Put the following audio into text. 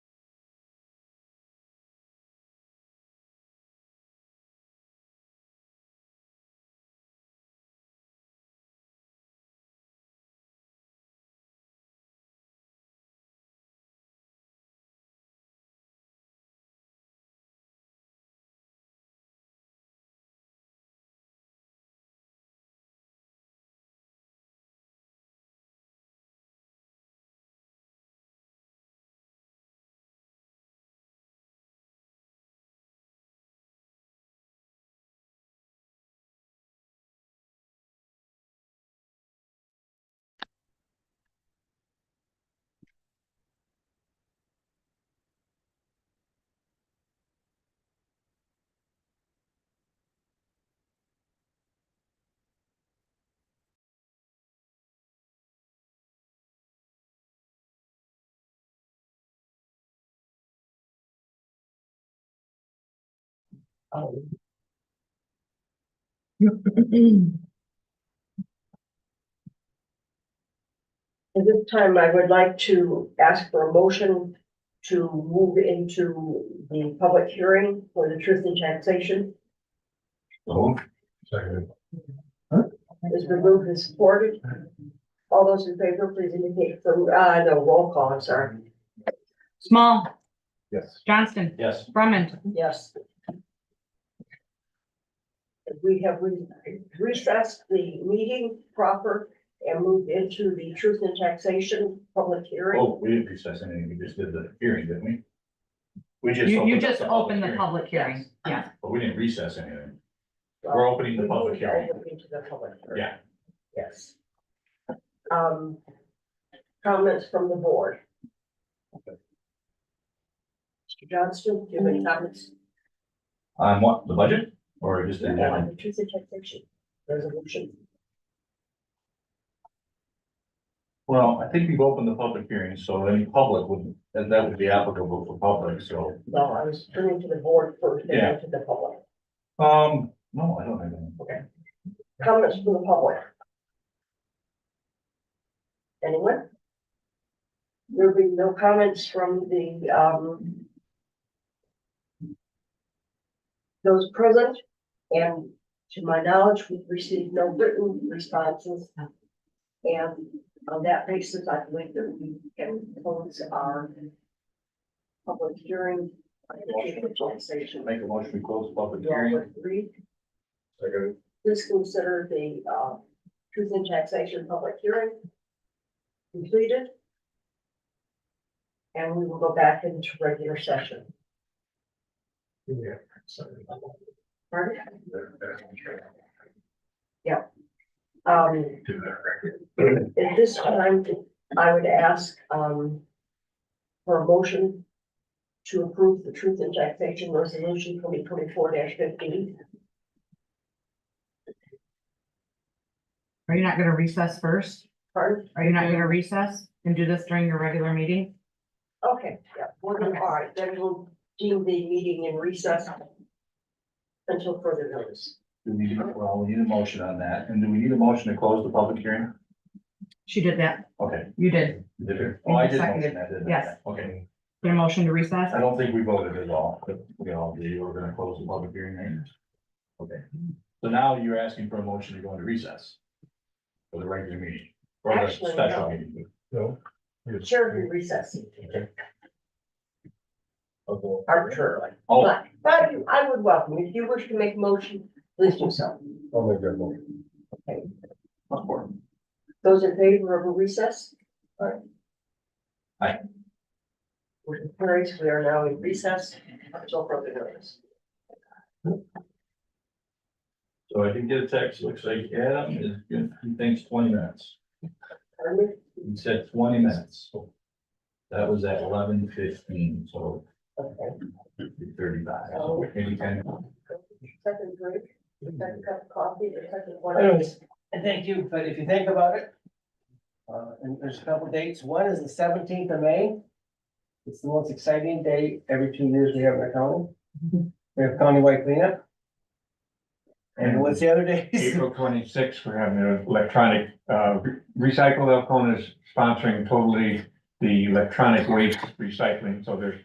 At this time, I would like to ask for a motion to move into the public hearing for the truth in taxation. So. Second. It's been moved and supported. All those in favor, please indicate, so, uh, no, roll call, I'm sorry. Small, Yes. Johnston, Yes. Brumman, Yes. We have re- recessed the meeting proper and moved into the truth in taxation public hearing. Oh, we didn't recess anything, we just did the hearing, didn't we? We just. you, you up just opened the public hearing, Yes. yeah. But we didn't recess anything, Oh, we're opening the Oh. public hearing, We moved Into the public hearing, yeah, yes. Um, comments from the board. Mr. Johnston, do you have any comments on what, the budget, or just in on general? the truth in taxation resolution? Well, I think we've opened the public hearing, so any public would, and that would be applicable for public, so. No, I was turning to the board first, Yeah. then to the public. Um, no, I don't have any. Comments from the public? Anyone? There'll be no comments from the, um, those present, and to my knowledge, we've received no written responses. And on that basis, I believe that we can close our public hearing. Make a motion to close the public hearing. Agree Second. please consider the uh, truth in taxation public hearing completed. And we will go back into regular session. Pardon? Um, at this time, I would ask um, for a motion to approve the truth in taxation resolution twenty twenty-four fifteen. Are you not gonna recess first? Pardon? Are you not gonna recess and do this during your regular meeting? Okay, yeah, we're gonna, all right, then we'll deem the meeting in recess until further notice. Do we, well, we need a motion on that, and do we need a motion to close the public hearing? She did that, Okay. you did, Did it? Oh, I did motion that, didn't I? Yes. Okay, your motion to recess, I don't think we voted at all, but we all agree we're gonna close the public hearing, right? Okay, so now you're asking for a motion to go into recess. For the regular meeting, or the Actually, no. special meeting. No. Chair can recess Oh, arbitrarily, I'll but, but I would welcome, if you wish to make a motion, please do so. make that motion. Okay. Okay. Those in favor of a recess? Aye. Aye. Motion carries, we are now in recess until further notice. So I did get a text, looks like Adam is, good. he thinks twenty minutes, Pardon me? he said twenty minutes. That was at eleven fifteen, so Okay, thirty-five, so any kind of. second drink, second cup of coffee, the second one. Anyways, and thank you, but if you think about it, uh, and there's a couple dates, one is the seventeenth of May. It's the most exciting day every two years we have in the county. We have countywide cleanup. And what's the other day? April twenty-sixth, we're having an electronic, uh, re- Recycle Elkhorn is sponsoring totally the electronic waste recycling, so there's